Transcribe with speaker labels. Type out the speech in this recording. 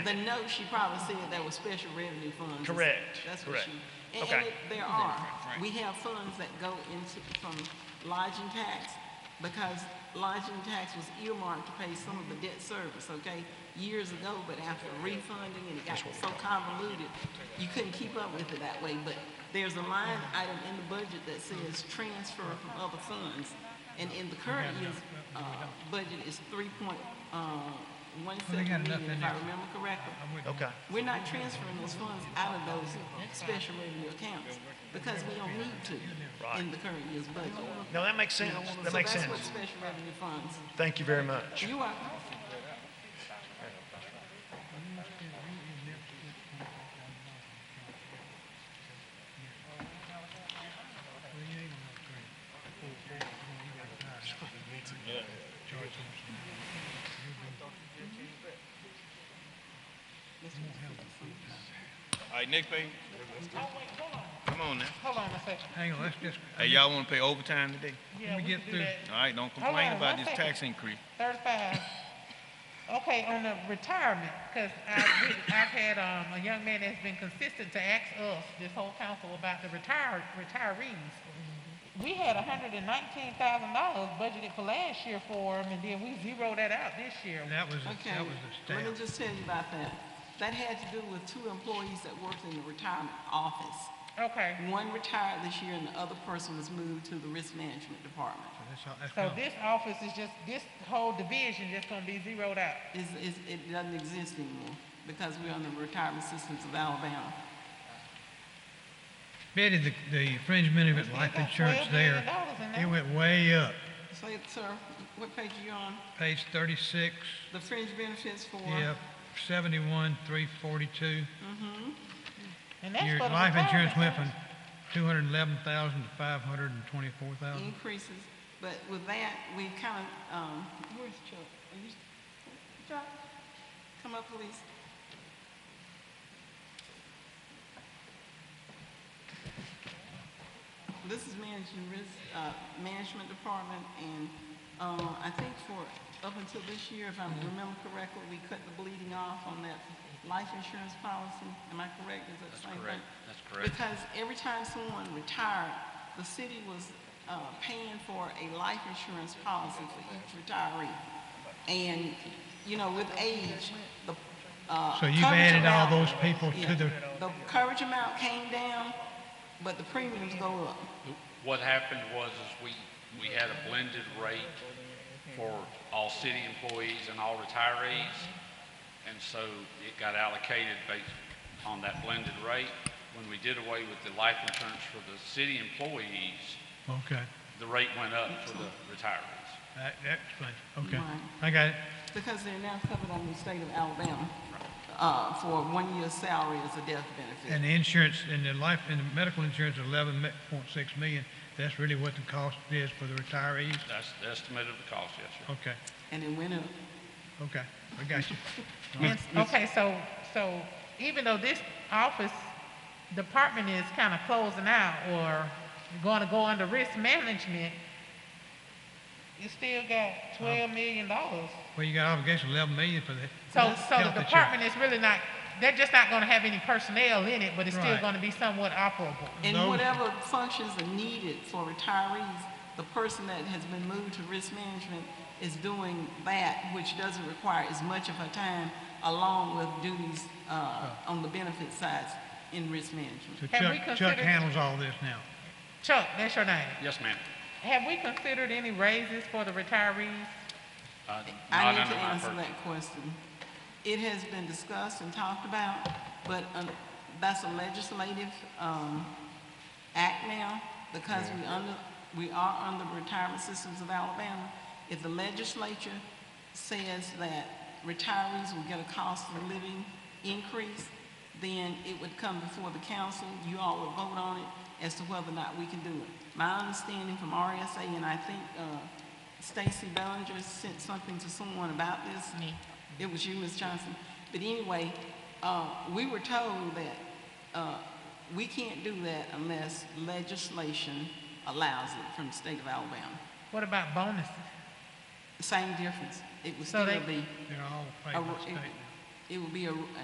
Speaker 1: The note she probably said that was special revenue funds.
Speaker 2: Correct,
Speaker 1: That's what
Speaker 2: correct.
Speaker 1: she, and, and
Speaker 2: Okay.
Speaker 1: it- there are, we have funds that go into, from lodging tax, because lodging tax was earmarked to pay some of the debt service, okay? Years ago, but after refunding and it got so convoluted, you couldn't keep up with it that way, but there's a line item in the budget that says transfer from other funds, and in the current year's, uh, budget is three point, uh, one
Speaker 3: They got
Speaker 1: seven
Speaker 3: enough
Speaker 1: million,
Speaker 3: in
Speaker 1: if I
Speaker 3: there.
Speaker 1: remember correctly.
Speaker 2: Okay,
Speaker 1: We're not transferring those funds out of those special revenue accounts because we don't need to in the current year's budget.
Speaker 2: no, that makes sense, that makes
Speaker 1: So
Speaker 2: sense.
Speaker 1: that's what special revenue funds,
Speaker 2: Thank you very much.
Speaker 1: you are,
Speaker 4: All right, next page. Come on now.
Speaker 5: Hold on a second.
Speaker 3: Hang on, let's just,
Speaker 4: Hey, y'all wanna pay overtime today?
Speaker 5: Yeah,
Speaker 3: me
Speaker 5: we
Speaker 3: get
Speaker 5: can do
Speaker 3: through.
Speaker 5: that.
Speaker 4: All right, don't complain
Speaker 5: on,
Speaker 4: about
Speaker 5: one
Speaker 4: this
Speaker 5: second.
Speaker 4: tax increase.
Speaker 5: Thirty-five. Okay, on the retirement, because I've, I've had, um, a young man that's been consistent to ask us, this whole council, about the retire, retirees.
Speaker 3: Mm-hmm.
Speaker 5: We had hundred and nineteen thousand dollars budgeted for last year for them, and then we zeroed that out this year.
Speaker 3: that was,
Speaker 1: okay.
Speaker 3: that was a
Speaker 1: Let me
Speaker 3: staff.
Speaker 1: just tell you about that. That had to do with two employees that worked in the retirement office.
Speaker 5: Okay,
Speaker 1: One retired this year and the other person was moved to the risk management department.
Speaker 3: That's all- that's
Speaker 5: so
Speaker 3: all.
Speaker 5: this office is just, this whole division just gonna be zeroed out.
Speaker 1: Is, is, it doesn't exist anymore because we're on the retirement systems of Alabama.
Speaker 3: Betty, the, the fringe benefit
Speaker 5: We
Speaker 3: life
Speaker 5: got
Speaker 3: insurance
Speaker 5: $12 million
Speaker 3: there,
Speaker 5: in
Speaker 3: it
Speaker 5: there.
Speaker 3: went way up.
Speaker 1: So, sir, what page are you on?
Speaker 3: Page thirty-six,
Speaker 1: The fringe benefits for?
Speaker 3: yeah, seventy-one, three forty-two.
Speaker 5: And that's
Speaker 3: Your
Speaker 5: for the
Speaker 3: life insurance went
Speaker 5: retirement.
Speaker 3: from two hundred and eleven thousand to five hundred and twenty-four thousand.
Speaker 1: increases, but with that, we kind of, um, where's Chuck? Are you, Chuck, come up, please. This is managing risk, uh, management department, and, uh, I think for, up until this year, if I remember correctly, we cut the bleeding off on that life insurance policy. Am I correct? Is that the same thing? That's correct. Because every time someone retired, the city was, uh, paying for a life insurance policy for each retiree. And, you know, with age, the, uh.
Speaker 3: So you've
Speaker 1: coverage
Speaker 3: added all
Speaker 1: amount-
Speaker 3: those people
Speaker 1: Yeah.
Speaker 3: to the,
Speaker 1: The coverage amount came down, but the premiums go up.
Speaker 6: What happened was is we, we had a blended rate for all city employees and all retirees. And so it got allocated based on that blended rate. When we did away with the life insurance for the city employees,
Speaker 5: Mm-hmm.
Speaker 3: okay,
Speaker 6: the rate went up for the retirees.
Speaker 3: that, that explains, it. okay.
Speaker 1: Right.
Speaker 3: I got it.
Speaker 1: Because they're now covered under the state of Alabama, uh, for one year's salary as a death benefit.
Speaker 3: And the insurance, and the life, and the medical insurance, eleven point six million, that's really what the cost is for the retirees?
Speaker 6: That's the estimate of the cost, yes, sir.
Speaker 3: Okay,
Speaker 1: And it went up.
Speaker 3: okay, I got you.
Speaker 5: And- Okay, so, so even though this office department is kind of closing out or going to go under risk management, you still got twelve million dollars.
Speaker 3: Well, you got obligation eleven million for the
Speaker 5: So, so
Speaker 3: health
Speaker 5: the
Speaker 3: insurance.
Speaker 5: department is really not, they're just not going to have any personnel in it, but it's still
Speaker 3: Right.
Speaker 5: going to be somewhat operable.
Speaker 1: And
Speaker 3: Those-
Speaker 1: whatever functions are needed for retirees, the person that has been moved to risk management is doing that, which doesn't require as much of her time, along with duties, uh, on the benefit sides in risk management.
Speaker 3: So
Speaker 5: Have we
Speaker 3: Chuck, Chuck
Speaker 5: considered-
Speaker 3: handles all this now.
Speaker 5: Chuck, that's your name.
Speaker 6: Yes, ma'am.
Speaker 5: Have we considered any raises for the retirees?
Speaker 6: Uh,
Speaker 1: I
Speaker 6: Not
Speaker 1: need
Speaker 6: under
Speaker 1: to
Speaker 6: my
Speaker 1: answer
Speaker 6: purview.
Speaker 1: that question. It has been discussed and talked about, but um, that's a legislative um, act now because we under, we are under retirement systems of Alabama. If the legislature says that retirees will get a cost of living increase, then it would come before the council, you all would vote on it as to whether or not we can do it. My understanding from RSA, and I think uh, Stacy Bellinger sent something to someone about this. Me. It was you, Ms. Johnson. But anyway, uh, we were told that uh, we can't do that unless legislation allows it from the state of Alabama.
Speaker 5: What about bonuses?
Speaker 1: Same difference. It would
Speaker 5: So
Speaker 1: still
Speaker 5: they-
Speaker 1: be,
Speaker 3: They're all paid
Speaker 1: a-
Speaker 3: by the state.
Speaker 1: it- it would be a,